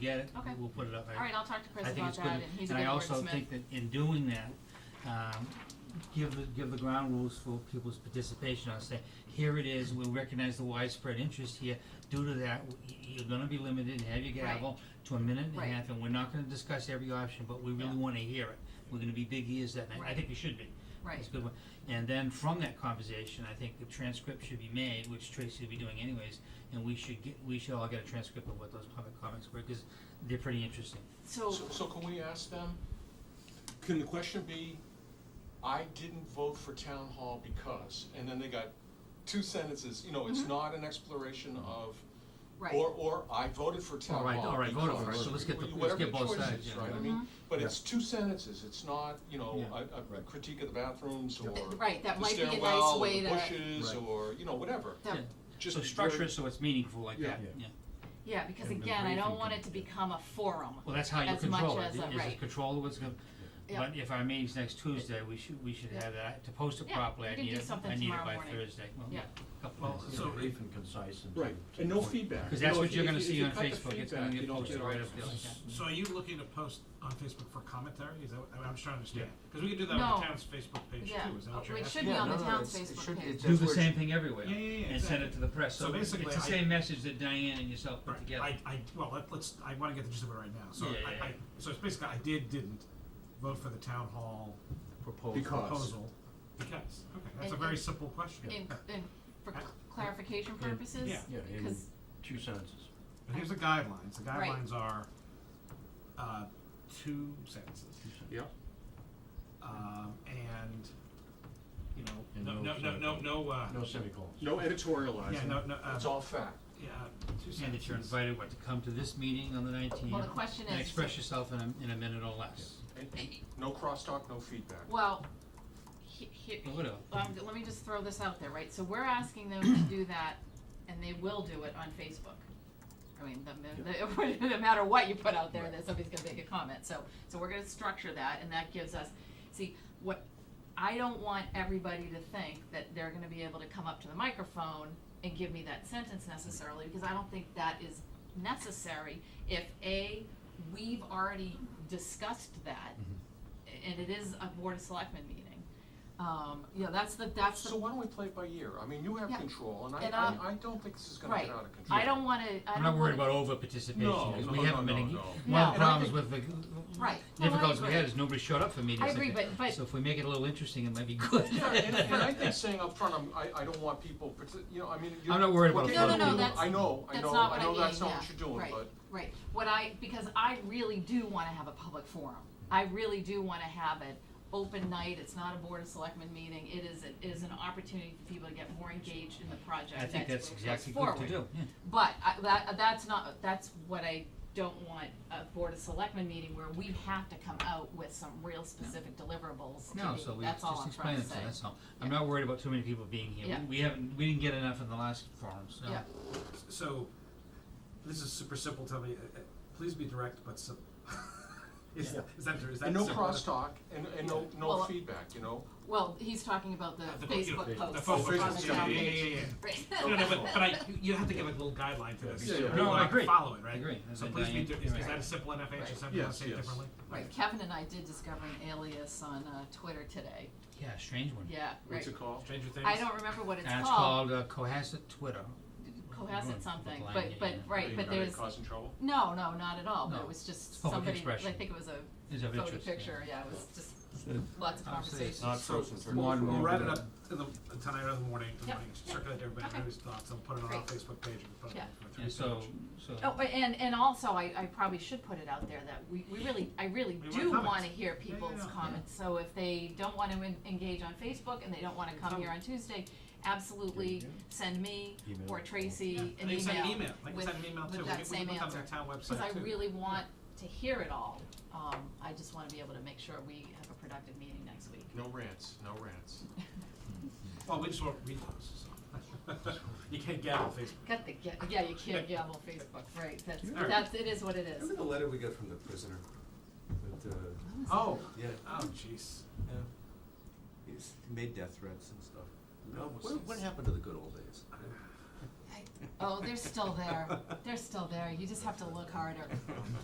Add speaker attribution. Speaker 1: get it,
Speaker 2: Okay.
Speaker 1: we'll put it up. I-
Speaker 2: All right, I'll talk to Chris
Speaker 1: I think
Speaker 2: about
Speaker 1: it's good.
Speaker 2: that, and he's a good
Speaker 1: I also
Speaker 2: wordsmith.
Speaker 1: think that in doing that, um, give the, give the ground rules for people's participation, I'll say, here it is, we recognize the widespread interest here. Due to that, w- y- you're gonna be limited, have your
Speaker 2: Right.
Speaker 1: gavel to a minute and a
Speaker 2: Right.
Speaker 1: half, and we're not gonna discuss every option, but we
Speaker 2: Yeah.
Speaker 1: really wanna hear it. We're gonna be big ears that night, I
Speaker 2: Right.
Speaker 1: think we should be.
Speaker 2: Right,
Speaker 1: That's a good one. And then from that conversation, I think the transcript should be made, which Tracy will be doing anyways, and we should get, we should all get a transcript of what those public comments were, because they're pretty interesting.
Speaker 2: so,
Speaker 3: So, so can we ask them, can the question be, I didn't vote for town hall because, and then they got two sentences, you know, it's
Speaker 2: Mhm.
Speaker 3: not an exploration of,
Speaker 2: right.
Speaker 3: or, or I voted for town
Speaker 1: All right,
Speaker 3: hall
Speaker 1: all right,
Speaker 3: because.
Speaker 1: voted for it, so let's get the- let's
Speaker 3: Whatever
Speaker 1: get
Speaker 3: the
Speaker 1: both
Speaker 3: choice
Speaker 1: sides,
Speaker 3: is,
Speaker 1: yeah.
Speaker 3: right, I mean,
Speaker 2: Mhm.
Speaker 3: but it's two sentences, it's not, you know,
Speaker 1: Yeah.
Speaker 3: a, a
Speaker 4: Right.
Speaker 3: critique of the bathrooms or
Speaker 2: Th- Right, that
Speaker 3: the
Speaker 2: might be a nice
Speaker 3: stairwell or
Speaker 2: way
Speaker 3: the
Speaker 2: to,
Speaker 3: bushes
Speaker 4: Right.
Speaker 3: or, you know, whatever,
Speaker 2: that-
Speaker 1: Yeah.
Speaker 3: just.
Speaker 1: So
Speaker 3: be
Speaker 1: structure
Speaker 3: very-
Speaker 1: it so it's meaningful like
Speaker 3: Yeah.
Speaker 1: that, yeah.
Speaker 2: yeah, because
Speaker 4: And the
Speaker 2: again, I don't
Speaker 4: briefing
Speaker 2: want
Speaker 4: can-
Speaker 2: it to become a forum.
Speaker 1: Well, that's how you
Speaker 2: As much
Speaker 1: control it,
Speaker 2: as
Speaker 1: is
Speaker 2: a-
Speaker 1: it
Speaker 2: right.
Speaker 1: control what's going
Speaker 2: Yeah.
Speaker 1: but if our meeting's next Tuesday, we should, we should
Speaker 2: Yeah.
Speaker 1: have that, to post it
Speaker 2: Yeah,
Speaker 1: properly,
Speaker 2: we
Speaker 1: I
Speaker 2: can
Speaker 1: need
Speaker 2: do
Speaker 1: it,
Speaker 2: something
Speaker 1: I need it
Speaker 2: tomorrow
Speaker 1: by
Speaker 2: morning.
Speaker 1: Thursday, well,
Speaker 2: Yeah.
Speaker 1: couple
Speaker 4: Well,
Speaker 1: minutes,
Speaker 4: so brief and concise and.
Speaker 3: Right, and no feedback.
Speaker 1: Because
Speaker 3: You
Speaker 1: that's
Speaker 3: know,
Speaker 1: what
Speaker 3: if
Speaker 1: you're
Speaker 3: you-
Speaker 1: gonna
Speaker 3: if
Speaker 1: see
Speaker 3: you
Speaker 1: on
Speaker 3: cut the
Speaker 1: Facebook, it's gonna
Speaker 3: feedback,
Speaker 1: get
Speaker 3: you don't
Speaker 1: posted
Speaker 3: get
Speaker 1: right
Speaker 3: all
Speaker 1: up there like that.
Speaker 5: So are you looking to post on Facebook for commentary? Is that, what- I mean, I'm just trying to understand. Because we could do that on
Speaker 2: No.
Speaker 5: the town's Facebook page
Speaker 2: Yeah.
Speaker 5: too, is that
Speaker 2: Oh,
Speaker 5: what you're
Speaker 2: it
Speaker 5: asking?
Speaker 2: should be
Speaker 6: Yeah,
Speaker 2: on the
Speaker 6: no, no,
Speaker 2: town's
Speaker 6: it's- it
Speaker 2: Facebook
Speaker 6: should-
Speaker 2: page.
Speaker 6: it's-
Speaker 1: Do the
Speaker 6: That's where
Speaker 1: same thing everywhere,
Speaker 5: Yeah, yeah, yeah,
Speaker 1: and send it to the press,
Speaker 5: So
Speaker 1: so it's
Speaker 5: basically,
Speaker 1: the
Speaker 5: I-
Speaker 1: same message that Diane and yourself put
Speaker 5: Right.
Speaker 1: together.
Speaker 5: I, I, well, let- let's, I want to get the gist of it right now. So
Speaker 1: Yeah, yeah,
Speaker 5: I, I,
Speaker 1: yeah.
Speaker 5: so it's basically, I did, didn't vote for the town hall
Speaker 4: Proposal.
Speaker 3: Because.
Speaker 5: proposal. Because, okay, that's a
Speaker 2: And-
Speaker 5: very
Speaker 2: and-
Speaker 5: simple question.
Speaker 2: In, in, for
Speaker 5: Yeah.
Speaker 2: clarification
Speaker 4: Yeah.
Speaker 2: purposes,
Speaker 5: Yeah.
Speaker 4: Yeah, in
Speaker 2: because,
Speaker 4: two sentences.
Speaker 5: But here's the guidelines. The
Speaker 2: Right.
Speaker 5: guidelines are, uh, two sentences.
Speaker 4: two sentences.
Speaker 3: Yep.
Speaker 5: Um, and, you
Speaker 4: And
Speaker 5: know,
Speaker 4: no
Speaker 5: no, no, no,
Speaker 4: semicolon.
Speaker 5: no, uh,
Speaker 4: No semicolons.
Speaker 3: No editorializing.
Speaker 5: yeah, no, no, uh,
Speaker 3: It's all fact.
Speaker 5: yeah, two sentences.
Speaker 1: And that you're invited, what, to come to this meeting on the nineteenth?
Speaker 2: well, the question
Speaker 1: And
Speaker 2: is,
Speaker 1: express yourself in a, in a minute or less.
Speaker 3: No crosstalk, no feedback.
Speaker 2: well, he, he,
Speaker 1: Or whatever.
Speaker 2: um, let me just throw this out there, right? So we're asking them to do that, and they will do it on Facebook. I mean, the, the, no matter what you put out there, that somebody's gonna make a comment, so, so we're gonna structure that, and that gives us, see, what, I don't want everybody to think that they're gonna be able to come up to the microphone and give me that sentence necessarily, because I don't think that is necessary if, A, we've already discussed that,
Speaker 1: Mm-hmm.
Speaker 2: and it is a Board of Selectmen meeting. Um, you know, that's the, that's the
Speaker 3: So why don't we play it by ear? I mean, you have
Speaker 2: Yeah.
Speaker 3: control, and I,
Speaker 2: And, um,
Speaker 3: I, I don't think this is gonna
Speaker 2: Right.
Speaker 3: get out of control.
Speaker 2: I don't wanna, I
Speaker 1: I'm
Speaker 2: don't
Speaker 1: not worried
Speaker 2: wanna,
Speaker 1: about over participation,
Speaker 3: No,
Speaker 1: because
Speaker 3: no,
Speaker 1: we
Speaker 3: no,
Speaker 1: haven't
Speaker 3: no,
Speaker 1: been,
Speaker 3: no.
Speaker 1: engaged. one of the
Speaker 3: No.
Speaker 1: problems with the
Speaker 2: right. No, I
Speaker 1: difficulties we
Speaker 2: agree.
Speaker 1: had is nobody showed up for meetings.
Speaker 2: I agree, but, but,
Speaker 1: So if we make it a little interesting, it might be good.
Speaker 3: Yeah, and, and I think saying up front, I'm, I, I don't want people, parti- you know, I mean, you.
Speaker 1: I'm not worried
Speaker 3: what
Speaker 1: about
Speaker 2: No,
Speaker 3: they
Speaker 2: no,
Speaker 3: do-
Speaker 2: no, that's-
Speaker 3: I know, I
Speaker 2: that's
Speaker 3: know,
Speaker 2: not what
Speaker 3: I
Speaker 2: I
Speaker 3: know that's
Speaker 2: mean,
Speaker 3: not
Speaker 2: yeah,
Speaker 3: what you're doing,
Speaker 2: right.
Speaker 3: but,
Speaker 2: right, what I, because I really do wanna have a public forum. I really do wanna have an open night, it's not a Board of Selectmen meeting, it is, a- it is an opportunity for people to get more engaged in the project
Speaker 1: I think that's
Speaker 2: that's
Speaker 1: exactly
Speaker 2: forward.
Speaker 1: good to do, yeah.
Speaker 2: But I, that, that's not, that's what I don't want a Board of Selectmen meeting where we have to come out with some real specific deliverables to
Speaker 1: No,
Speaker 2: be-
Speaker 1: so we
Speaker 2: that's all
Speaker 1: just
Speaker 2: I'm
Speaker 1: explain
Speaker 2: trying
Speaker 1: it
Speaker 2: to
Speaker 1: to
Speaker 2: say.
Speaker 1: them, that's all. I'm
Speaker 2: Yeah.
Speaker 1: not worried about too many people being here.
Speaker 2: Yeah.
Speaker 1: We- We haven't, we didn't get enough in the last forum, so.
Speaker 2: Yeah.
Speaker 5: So, this is super simple. Tell me, uh, uh, please be direct, but simple. is,
Speaker 3: Yeah.
Speaker 5: is that true? Is that
Speaker 3: and no
Speaker 5: simple?
Speaker 3: crosstalk, and, and no, no
Speaker 2: Well,
Speaker 3: feedback, you know?
Speaker 2: Well, he's talking about the
Speaker 5: Uh, the- you know,
Speaker 2: Facebook
Speaker 5: The
Speaker 2: post.
Speaker 5: Facebook,
Speaker 3: Oh,
Speaker 5: post,
Speaker 3: Facebook,
Speaker 5: yeah,
Speaker 3: yeah.
Speaker 5: yeah, yeah, yeah. yeah. No, no, but, but I, you- you have to give a little guideline to this.
Speaker 3: Yeah,
Speaker 5: so
Speaker 3: yeah.
Speaker 5: people
Speaker 3: No,
Speaker 1: I
Speaker 5: can
Speaker 1: agree.
Speaker 5: Follow it, right?
Speaker 1: I agree.
Speaker 5: So
Speaker 1: And
Speaker 5: please be,
Speaker 1: Diane-
Speaker 5: dir- is, is
Speaker 2: Right.
Speaker 5: that a simple enough answer?
Speaker 2: Right.
Speaker 5: Some people
Speaker 3: Yes,
Speaker 5: say it
Speaker 3: yes.
Speaker 5: differently.
Speaker 2: Right, Kevin and I did discover an alias on uh, Twitter today.
Speaker 1: Yeah, strange one.
Speaker 2: Yeah, right.
Speaker 3: What's it called?
Speaker 5: Stranger Things.
Speaker 2: I don't remember what it's
Speaker 1: And it's
Speaker 2: called.
Speaker 1: called uh, Cohasset Twitter.
Speaker 2: Cohasset something,
Speaker 1: Blind,
Speaker 2: but
Speaker 1: yeah,
Speaker 2: but
Speaker 1: yeah.
Speaker 2: right, but
Speaker 3: Are they
Speaker 2: there's
Speaker 3: causing trouble?
Speaker 2: no, no, not at all. But
Speaker 1: No,
Speaker 2: it was just
Speaker 1: public
Speaker 2: somebody.
Speaker 1: expression.
Speaker 2: I think it was a
Speaker 1: Is of
Speaker 2: photo
Speaker 1: interest. yeah.
Speaker 2: picture. Yeah, it was just lots of
Speaker 1: Obviously, it's
Speaker 2: conversations.
Speaker 1: not
Speaker 5: So,
Speaker 1: It's
Speaker 5: we'll,
Speaker 1: more and
Speaker 5: we'll
Speaker 1: more
Speaker 5: write it
Speaker 1: of
Speaker 5: up in the, tonight or in the morning. in the
Speaker 2: Yep,
Speaker 5: morning,
Speaker 2: yep.
Speaker 5: Circulate to everybody
Speaker 2: Okay.
Speaker 5: everybody's thoughts. I'll put it on our
Speaker 2: Great.
Speaker 5: Facebook page and put it
Speaker 2: Yeah.
Speaker 5: on
Speaker 1: Yeah, so, so.
Speaker 2: Oh, a- and and also, I, I probably should put it out there that we, we really, I really
Speaker 5: We want
Speaker 2: do
Speaker 5: comments.
Speaker 2: wanna hear
Speaker 5: yeah,
Speaker 2: people's
Speaker 5: yeah.
Speaker 2: comments, so if they don't wanna en- engage on Facebook and they don't wanna come here on Tuesday, absolutely
Speaker 4: Yeah, yeah.
Speaker 2: send me
Speaker 4: Email.
Speaker 2: or Tracy an email.
Speaker 5: And they send an email. They can
Speaker 2: with-
Speaker 5: send an email
Speaker 2: with
Speaker 5: too. We
Speaker 2: that
Speaker 5: can- we
Speaker 2: same
Speaker 5: can put that
Speaker 2: answer.
Speaker 5: on the town website
Speaker 2: Cause I
Speaker 5: too.
Speaker 2: really want to hear it all, um, I just wanna be able to make sure we have a productive meeting next week.
Speaker 3: No rants, no rants.
Speaker 5: Well, we just won't read those, so. You can't get it on Facebook.
Speaker 2: Got the, ga- yeah, you can't gavel Facebook, right, that's,
Speaker 5: Yeah.
Speaker 2: that's, it is what it is.
Speaker 6: Remember the letter we got from the prisoner? That, uh,
Speaker 5: Oh,
Speaker 6: yeah,
Speaker 5: oh, jeez.
Speaker 6: he's made death threats and stuff.
Speaker 5: No,
Speaker 6: What, what happened to the good old days?
Speaker 2: I- Oh, they're still there, they're still there, you just have to look harder.